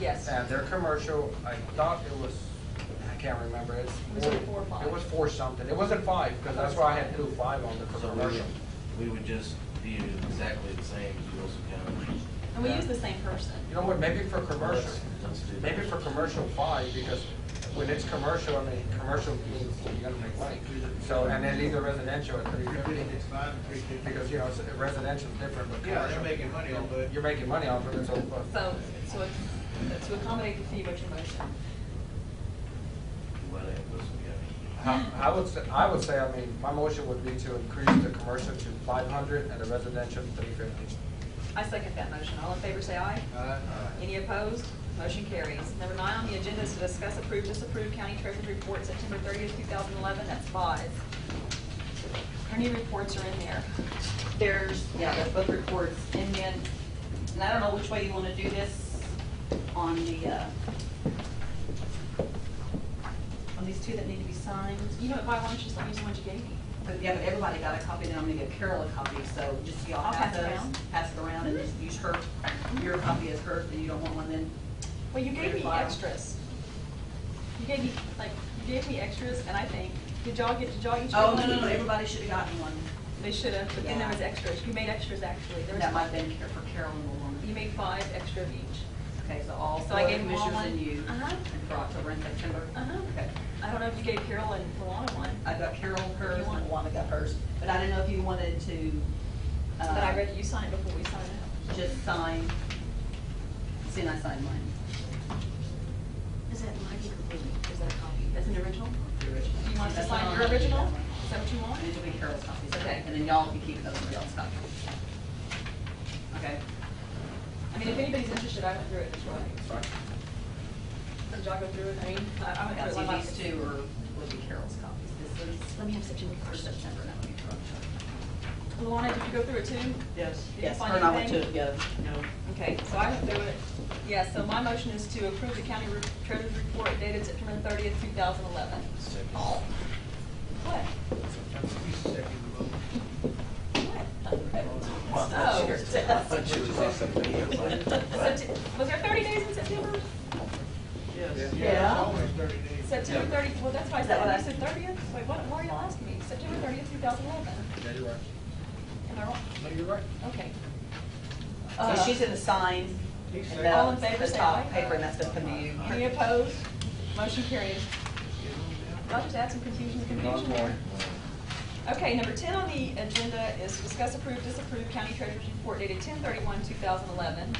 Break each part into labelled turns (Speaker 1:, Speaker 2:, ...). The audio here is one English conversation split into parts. Speaker 1: Yes.
Speaker 2: And their commercial, I thought it was, I can't remember, it's.
Speaker 1: It was like four or five.
Speaker 2: It was four something, it wasn't five, because that's why I had two five on the
Speaker 3: So we would,
Speaker 2: commercial.
Speaker 3: we would just view exactly the same as Wilson County.
Speaker 1: And we use the same person.
Speaker 2: You know what, maybe for commercial,
Speaker 3: Let's- let's do that.
Speaker 2: maybe for commercial five, because when it's commercial, I mean, commercial means you gotta make money. So, and then leave the residential at three fifty,
Speaker 4: It's five and three fifty.
Speaker 2: because, you know, it's- residential's different, but
Speaker 4: Yeah, they're
Speaker 2: commercial-
Speaker 4: making money off of it.
Speaker 2: You're making money off of it, so. uh,
Speaker 1: So, so it- to accommodate the fee, what's your motion?
Speaker 3: What, uh, Wilson County?
Speaker 2: I Um, I would, say- I would say, I mean, my motion would be to increase the commercial to five hundred and the residential to three fifty.
Speaker 1: I second that motion. All in favor, say aye.
Speaker 4: Aye.
Speaker 1: Any opposed? Motion carries. Number nine on the agenda is to discuss approve, disapprove county treasurer's report September thirtieth, two thousand eleven. That's five. Attorney reports are in there.
Speaker 5: There's, yeah, there's both reports, and then, and I don't know which way you wanna do this on the, uh, on these two that need to be signed.
Speaker 1: You know, why why don't you just let me use the one you gave me?
Speaker 5: But, yeah, but everybody got a copy, then I'm gonna give Carol a copy, so just
Speaker 1: I'll
Speaker 5: y'all have
Speaker 1: pass it
Speaker 5: those.
Speaker 1: around. Mm-hmm.
Speaker 5: Pass it around and just use her, your copy is hers, and you don't want one then.
Speaker 1: Well, you gave me
Speaker 5: File.
Speaker 1: extras. You gave me, like, you gave me extras, and I think, did y'all get, did y'all each?
Speaker 5: Oh,
Speaker 1: get
Speaker 5: no,
Speaker 1: one?
Speaker 5: no, no, everybody should've gotten one.
Speaker 1: They should have, but then there was
Speaker 5: Yeah.
Speaker 1: extras. You made extras, actually. There was
Speaker 5: That might've been care for Carol and the one.
Speaker 1: You made five extra of each.
Speaker 5: Okay, so all
Speaker 1: So
Speaker 5: four
Speaker 1: I
Speaker 5: of the
Speaker 1: gave them all
Speaker 5: commissioners and
Speaker 1: one?
Speaker 5: you,
Speaker 1: Uh-huh.
Speaker 5: and for October and September?
Speaker 1: Uh-huh.
Speaker 5: Okay.
Speaker 1: I don't know if you gave Carol and Luana one.
Speaker 5: I got Carol hers,
Speaker 1: You want-
Speaker 5: and Wanda got hers, but I didn't know if you wanted to. uh,
Speaker 1: But I read you signed before we signed it.
Speaker 5: Just sign, see, and I signed mine,
Speaker 1: Is that mine or is that a copy? That's an original?
Speaker 5: the original.
Speaker 1: Do you want us to
Speaker 5: That's
Speaker 1: sign
Speaker 5: on-
Speaker 1: your original?
Speaker 5: that's on-
Speaker 1: Is that what you want?
Speaker 5: And it'll be Carol's copy,
Speaker 1: Okay.
Speaker 5: okay, and then y'all can keep those for y'all's copy. Okay,
Speaker 1: I mean, if anybody's interested, I went through it this way.
Speaker 2: Sorry.
Speaker 1: Did y'all go through it? I mean, I I
Speaker 5: I
Speaker 1: went
Speaker 5: got
Speaker 1: through it.
Speaker 5: you
Speaker 1: like-
Speaker 5: these two, or will be Carol's copies, this is. Let me have September first. September, that would be for October.
Speaker 1: Luana, did you go through it too?
Speaker 6: Yes.
Speaker 1: Did you
Speaker 5: Yes,
Speaker 1: find
Speaker 5: her and I went to
Speaker 1: anything?
Speaker 5: it together.
Speaker 6: No.
Speaker 1: Okay, so I went through it. Yeah, so my motion is to approve the county re- treasurer's report dated September thirtieth, two thousand eleven.
Speaker 3: Second.
Speaker 1: What?
Speaker 4: Sometimes we second the vote.
Speaker 1: What?
Speaker 3: I
Speaker 1: So,
Speaker 3: thought you would say something else.
Speaker 1: Septe- was there thirty days in September?
Speaker 6: Yes.
Speaker 5: Yeah.
Speaker 4: It's always thirty days.
Speaker 1: September
Speaker 3: Yeah.
Speaker 1: thirty, well, that's why I
Speaker 5: Is
Speaker 1: said,
Speaker 5: that what
Speaker 1: I
Speaker 5: I-
Speaker 1: said thirtieth, wait, what, why are y'all asking me? September thirtieth, two thousand eleven,
Speaker 2: Yeah, you're right.
Speaker 1: am I wrong?
Speaker 2: No, you're right.
Speaker 1: Okay, Uh,
Speaker 5: So she's gonna sign.
Speaker 4: He
Speaker 5: and
Speaker 4: said-
Speaker 5: the-
Speaker 1: All in favor,
Speaker 5: The
Speaker 1: say aye.
Speaker 5: top paper, and that's gonna come to you.
Speaker 1: any opposed? Motion carries. Y'all just add some confusion to confusion there.
Speaker 3: uh,
Speaker 1: Okay, number ten on the agenda is to discuss approve, disapprove county treasurer's report dated ten thirty-one, two thousand eleven.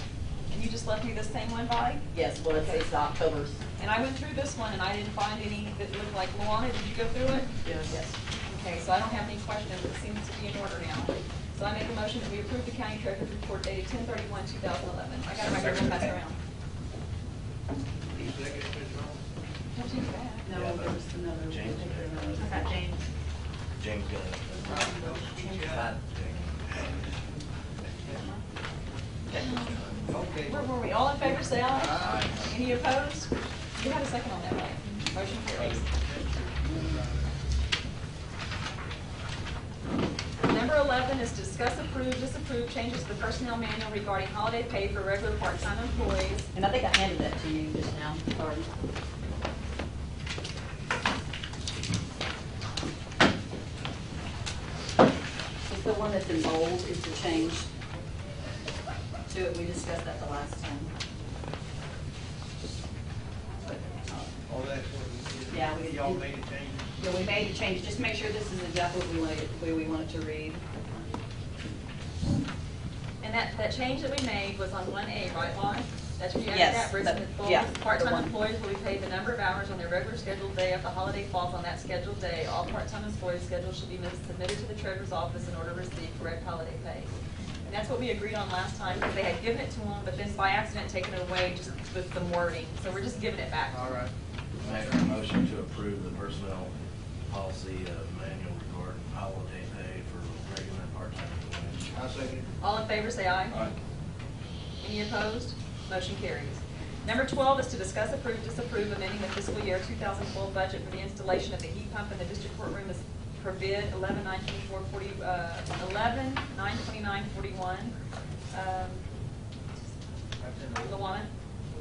Speaker 1: And you just left me the same one, Bonnie?
Speaker 5: Yes, well, it's, it's October's.
Speaker 1: And I went through this one and I didn't find any that looked like Luana, did you go through it?
Speaker 6: Yes.
Speaker 1: Okay, so I don't have any questions, it seems to be in order now. So I make a motion that we approve the county treasurer's report dated ten thirty-one, two thousand eleven. I got it right here, I'm gonna pass it around.
Speaker 4: He seconded it wrong.
Speaker 1: Don't you do that.
Speaker 5: No, there was another.
Speaker 3: James.
Speaker 5: Okay, James.
Speaker 3: James got it.
Speaker 4: Okay.
Speaker 1: Where were we, all in favor, say aye. Any opposed? You had a second on that, right? Motion carries. Number eleven is discuss approve, disapprove changes to the personnel manual regarding holiday pay for regular part-time employees.
Speaker 5: And I think I handed that to you just now, sorry. It's the one that's in bold is the change to it, we discussed that the last time.
Speaker 4: All that's what we did.
Speaker 5: Yeah, we-
Speaker 4: Y'all made a change.
Speaker 5: Yeah, we made a change, just make sure this is exactly what we want, it- the way we want it to read.
Speaker 1: And that, that change that we made was on one A, right, Lonnie? That's where you added
Speaker 5: Yes,
Speaker 1: that, where it said
Speaker 5: that-
Speaker 1: employees-
Speaker 5: yeah, the
Speaker 1: part-time
Speaker 5: one.
Speaker 1: employees will be paid the number of hours on their regular scheduled day if the holiday falls on that scheduled day. All part-time employees' schedules should be submitted to the treasurer's office in order to receive correct holiday pay. And that's what we agreed on last time, because they had given it to them, but then by accident taken it away just with some wording. So we're just giving it back.
Speaker 4: All right.
Speaker 3: Make a motion to approve the personnel policy uh, manual regarding holiday pay for regular and part-time employees.
Speaker 4: I second it.
Speaker 1: All in favor, say aye. Any opposed? Motion carries. Number 12 is to discuss approve, disapprove amending the fiscal year 2012 budget for the installation of the heat pump in the district courtroom as per bid 11-924-40, uh, 11-929-41. Um,
Speaker 4: That's in order.
Speaker 1: Luana?